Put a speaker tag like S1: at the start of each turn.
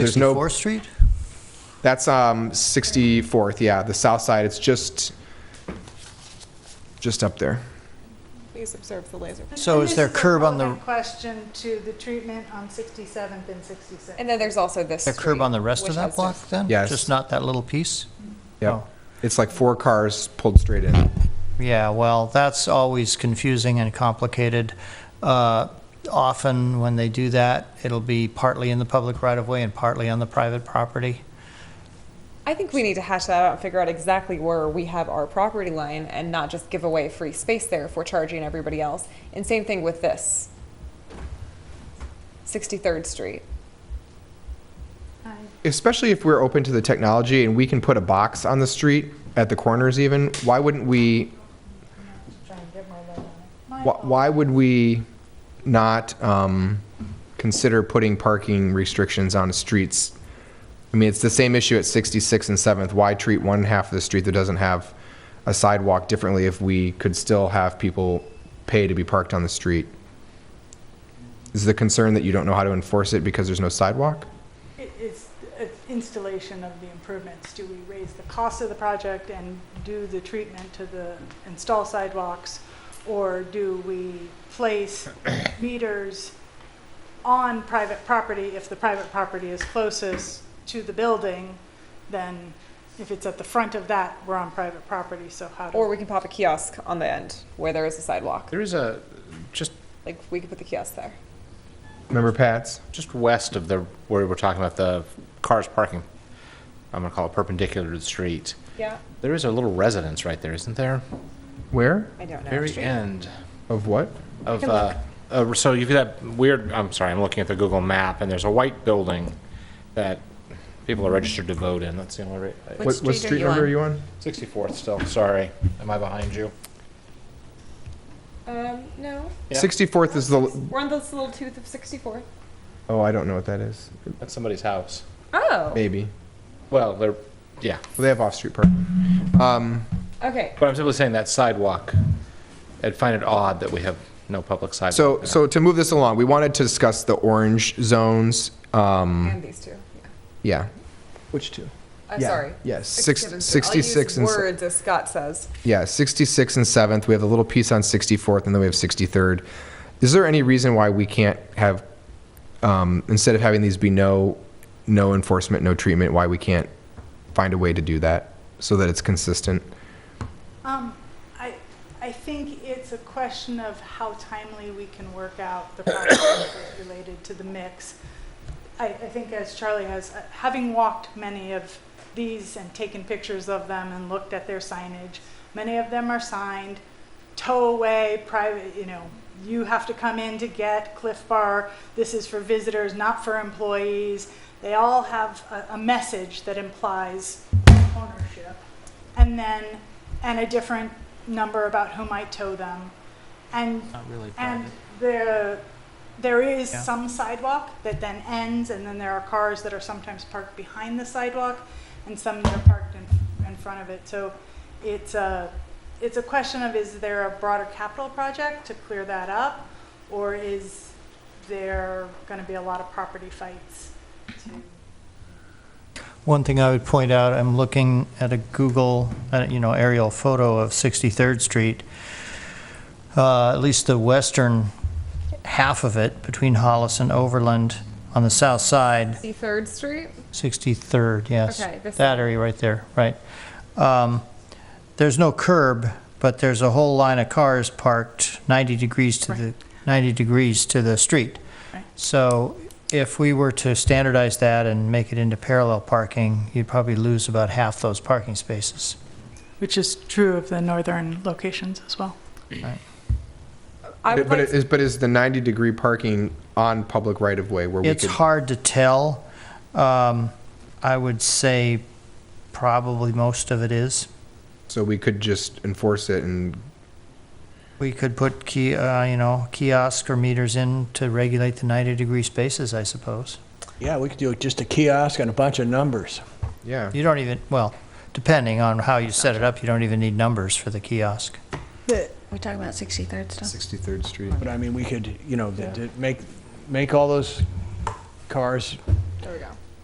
S1: There's no-
S2: 64th Street?
S1: That's um, 64th, yeah, the south side. It's just, just up there.
S3: Please observe the laser.
S2: So
S4: And
S2: is
S4: this
S2: there
S4: a
S2: curb on the-
S4: relevant Question to the treatment on 67th and 66th.
S3: And then there's also this.
S2: A curb on the rest of that block then?
S1: Yes.
S2: Just not that little piece?
S1: Yeah.
S2: Oh.
S1: It's like four cars pulled straight in.
S2: Yeah, well, that's always confusing and complicated. Uh, Often, when they do that, it'll be partly in the public right-of-way and partly on the private property.
S3: I think we need to hash that out and figure out exactly where we have our property line and not just give away free space there if we're charging everybody else. And same thing with this. 63rd Street.
S4: I-
S1: Especially if we're open to the technology and we can put a box on the street at the corners even, why wouldn't we,
S4: Try and get my light on it. My
S1: wh-
S4: fault.
S1: why would we not um, consider putting parking restrictions on streets? I mean, it's the same issue at 66 and 7th. Why treat one half of the street that doesn't have a sidewalk differently if we could still have people pay to be parked on the street? Is the concern that you don't know how to enforce it because there's no sidewalk?
S4: It- It's it's installation of the improvements. Do we raise the cost of the project and do the treatment to the, install sidewalks? Or do we place meters on private property if the private property is closest to the building? Then if it's at the front of that, we're on private property, so how do?
S3: Or we can pop a kiosk on the end where there is a sidewalk.
S5: There is a, just,
S3: Like, we could put the kiosk there.
S1: Remember Pat's?
S5: just west of the, where we're talking about the cars parking, I'm gonna call it perpendicular to the street.
S3: Yeah.
S5: There is a little residence right there, isn't there?
S1: Where?
S3: I don't know.
S5: Very
S3: Street.
S5: end
S1: Of what?
S5: of,
S3: can
S5: uh, uh, so you've got that weird, I'm sorry, I'm looking at the Google map, and there's a white building that people are registered to vote in, that's the only, re-
S1: What,
S6: What
S1: what
S6: street are
S1: street
S6: you
S1: number
S6: on?
S1: are you on?
S5: 64th still, sorry, am I behind you?
S3: Um, no.
S5: Yeah.
S1: 64th is the,
S3: We're on this little tooth of 64.
S1: oh, I don't know what that is.
S5: That's somebody's house.
S3: Oh.
S1: Maybe.
S5: Well, they're, yeah,
S1: Well, they have off-street parking. Um,
S3: Okay.
S5: but I'm simply saying that sidewalk, I'd find it odd that we have no public sidewalk.
S1: So,
S5: there.
S1: so to move this along, we wanted to discuss the orange zones. Um,
S3: And these two. Yeah.
S1: yeah. Which two?
S3: Uh,
S1: Yeah,
S3: sorry.
S1: yeah, six-
S3: 67.
S1: 66
S3: I'll
S1: and
S3: use
S1: se-
S3: words as Scott says.
S1: Yeah, 66 and 7th. We have a little piece on 64th, and then we have 63rd. Is there any reason why we can't have, um, instead of having these be no, no enforcement, no treatment, why we can't find a way to do that so that it's consistent?
S4: Um, I, I think it's a question of how timely we can work out the process related to the mix. I, I think as Charlie has, uh, having walked many of these and taken pictures of them and looked at their signage, many of them are signed, tow away, private, you know, you have to come in to get Cliff Bar, this is for visitors, not for employees. They all have a, a message that implies ownership. And then, and a different number about who might tow them. And
S2: Not really
S4: and there, there is
S2: Yeah.
S4: some sidewalk that then ends, and then there are cars that are sometimes parked behind the sidewalk, and some that are parked in, in front of it. So it's a, it's a question of, is there a broader capital project to clear that up? Or is there gonna be a lot of property fights to?
S2: One thing I would point out, I'm looking at a Google, uh, you know, aerial photo of 63rd Street. Uh, At least the western half of it, between Hollis and Overland, on the south side,
S3: 63rd Street?
S2: 63rd, yes.
S3: Okay, this-
S2: That area right there, right. Um, There's no curb, but there's a whole line of cars parked 90 degrees to the, 90 degrees to the street.
S4: Right.
S2: So if we were to standardize that and make it into parallel parking, you'd probably lose about half those parking spaces.
S4: Which is true of the northern locations as well.
S3: I would
S1: But
S3: like
S1: it is, but is the 90-degree parking on public right-of-way where we could?
S2: It's hard to tell. Um, I would say probably most of it is.
S1: So we could just enforce it and,
S2: We could put key, uh, you know, kiosk or meters in to regulate the 90-degree spaces, I suppose.
S7: Yeah, we could do just a kiosk and a bunch of numbers.
S1: yeah.
S2: You don't even, well, depending on how you set it up, you don't even need numbers for the kiosk.
S6: We're talking about 63rd still?
S1: 63rd Street.
S7: But I mean, we could, you know, th- th- make, make all those cars
S3: there we go.